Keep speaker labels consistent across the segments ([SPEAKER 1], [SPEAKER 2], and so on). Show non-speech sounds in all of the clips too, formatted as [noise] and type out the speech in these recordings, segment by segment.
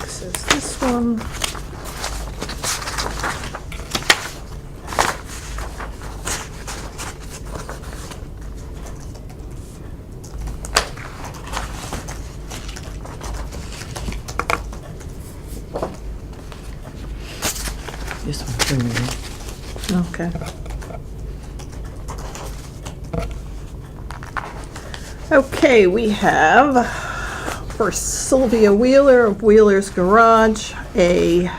[SPEAKER 1] This one.
[SPEAKER 2] This one's criminal.
[SPEAKER 1] Okay. Okay, we have for Sylvia Wheeler of Wheeler's Garage, a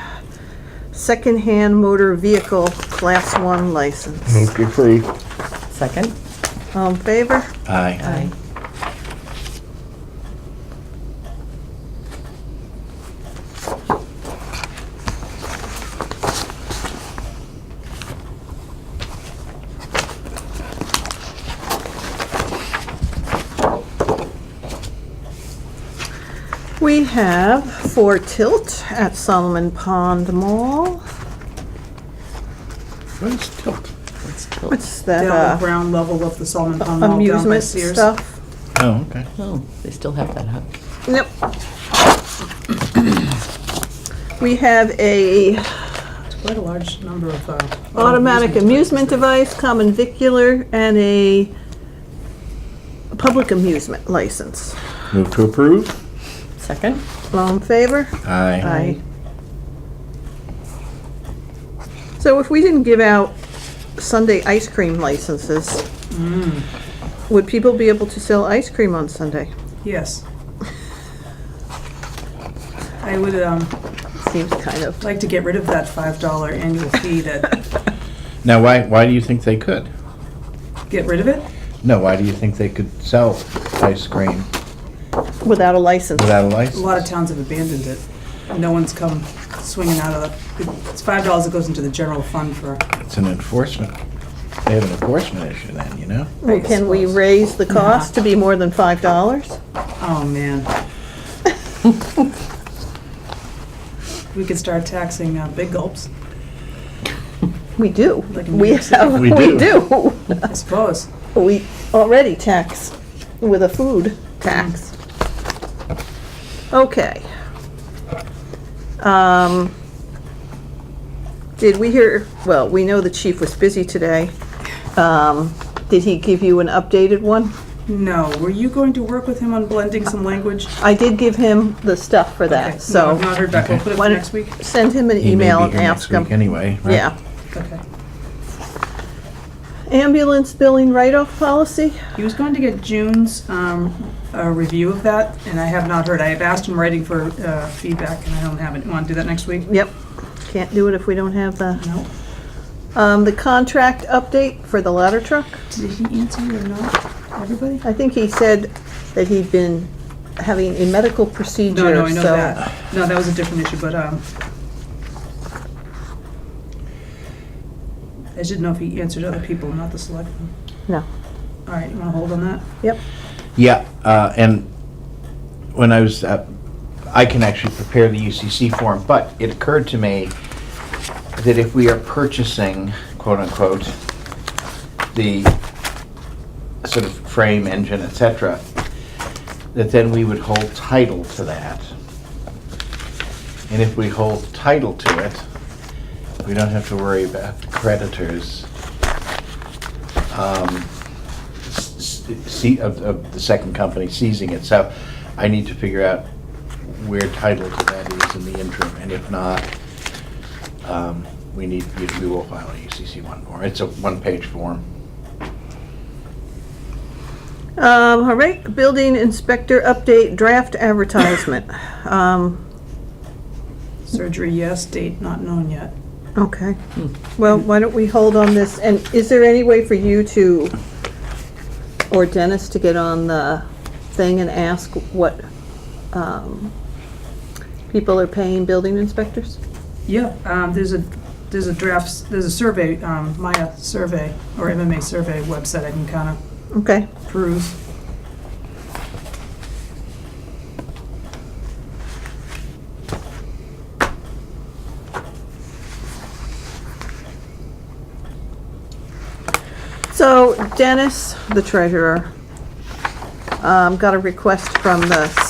[SPEAKER 1] secondhand motor vehicle Class 1 license.
[SPEAKER 3] Move to approve.
[SPEAKER 2] Second?
[SPEAKER 1] All in favor?
[SPEAKER 3] Aye.
[SPEAKER 2] Aye.
[SPEAKER 1] We have for Tilt at Solomon Pond Mall.
[SPEAKER 3] Where's Tilt?
[SPEAKER 2] Let's go.
[SPEAKER 1] What's that
[SPEAKER 4] down the
[SPEAKER 1] uh,
[SPEAKER 4] ground level of the Solomon Pond Mall down by
[SPEAKER 1] amusement
[SPEAKER 4] Sears.
[SPEAKER 1] stuff?
[SPEAKER 3] Oh, okay.
[SPEAKER 2] Oh, they still have that, huh?
[SPEAKER 1] Yep. We have a
[SPEAKER 4] It's quite a large number of. uh,
[SPEAKER 1] automatic
[SPEAKER 4] amusement
[SPEAKER 1] amusement device, common vicular, and a public amusement license.
[SPEAKER 3] Move to approve.
[SPEAKER 2] Second?
[SPEAKER 1] All in favor?
[SPEAKER 3] Aye.
[SPEAKER 1] So if we didn't give out Sunday ice cream licenses, would people be able to sell ice cream on Sunday?
[SPEAKER 4] places. Yes. I would um,
[SPEAKER 1] Seems kind of,
[SPEAKER 4] like to get rid of that five dollar annual
[SPEAKER 1] [laughs]
[SPEAKER 4] fee that,
[SPEAKER 3] Now, why, why do you think they could?
[SPEAKER 4] get rid of it?
[SPEAKER 3] No, why do you think they could sell ice cream
[SPEAKER 1] without a license.
[SPEAKER 3] without a
[SPEAKER 4] A lot of
[SPEAKER 3] license?
[SPEAKER 4] towns have abandoned it. No one's come swinging out of the, it's five dollars that goes into the general fund for,
[SPEAKER 3] It's an enforcement, they have an enforcement issue then, you know?
[SPEAKER 1] Well, Can we raise the cost to be more than five dollars?
[SPEAKER 4] oh,
[SPEAKER 1] [laughs]
[SPEAKER 4] man. We could start taxing uh, big gulps,
[SPEAKER 1] We do.
[SPEAKER 4] Like in
[SPEAKER 1] We
[SPEAKER 4] New York City.
[SPEAKER 1] have,
[SPEAKER 3] We
[SPEAKER 1] we
[SPEAKER 3] do.
[SPEAKER 1] do.
[SPEAKER 4] I suppose.
[SPEAKER 1] We already tax with a food tax. Okay. Um, Did we hear, well, we know the chief was busy today. Um, Did he give you an updated one?
[SPEAKER 4] No, were you going to work with him on blending some language?
[SPEAKER 1] I did give him the stuff for
[SPEAKER 4] Okay,
[SPEAKER 1] that,
[SPEAKER 4] No,
[SPEAKER 1] so
[SPEAKER 4] I've not heard back, we'll put it
[SPEAKER 1] Why
[SPEAKER 4] for
[SPEAKER 1] don't-
[SPEAKER 4] next week.
[SPEAKER 1] send him an
[SPEAKER 3] He may
[SPEAKER 1] email
[SPEAKER 3] be
[SPEAKER 1] and
[SPEAKER 3] here next
[SPEAKER 1] ask him.
[SPEAKER 3] week Anyway, right?
[SPEAKER 1] Yeah.
[SPEAKER 4] Okay.
[SPEAKER 1] Ambulance billing write-off policy?
[SPEAKER 4] He was going to get June's um, uh, review of that, and I have not heard. I have asked him writing for uh, feedback, and I don't have it. You Want to do that next week?
[SPEAKER 1] Yep. Can't do it if we don't have the.
[SPEAKER 4] No.
[SPEAKER 1] Um, the contract update for the ladder truck,
[SPEAKER 4] Did he answer you or not? Everybody?
[SPEAKER 1] I think he said that he'd been having a medical procedure,
[SPEAKER 4] No, no, I know
[SPEAKER 1] so-
[SPEAKER 4] that. No, that was a different issue, but um, I just didn't know if he answered other people, not the selectmen.
[SPEAKER 1] No,
[SPEAKER 4] All right, you want to hold on that?
[SPEAKER 1] yep,
[SPEAKER 3] Yeah, uh, and when I was, uh, I can actually prepare the UCC form, but it occurred to me that if we are purchasing, quote unquote, the sort of frame, engine, et cetera, that then we would hold title to that. And if we hold title to it, we don't have to worry about creditors. Um, see, of, of the second company seizing it, so I need to figure out where title to that is in the interim, and if not, um, we need, we- we will file a UCC one form, it's a one-page form.
[SPEAKER 1] um, all right, building inspector update, draft [laughs] advertisement, um,
[SPEAKER 4] Surgery, yes. Date, not known yet.
[SPEAKER 1] okay. Well, why don't we hold on this, and is there any way for you to, or Dennis to get on the thing and ask what, um, people are paying building inspectors?
[SPEAKER 4] Yeah, um, there's a, there's a drafts, there's a survey, um, Maya survey, or MMA survey website I can kind of
[SPEAKER 1] Okay.
[SPEAKER 4] peruse.
[SPEAKER 1] So Dennis, the treasurer, um, got a request from the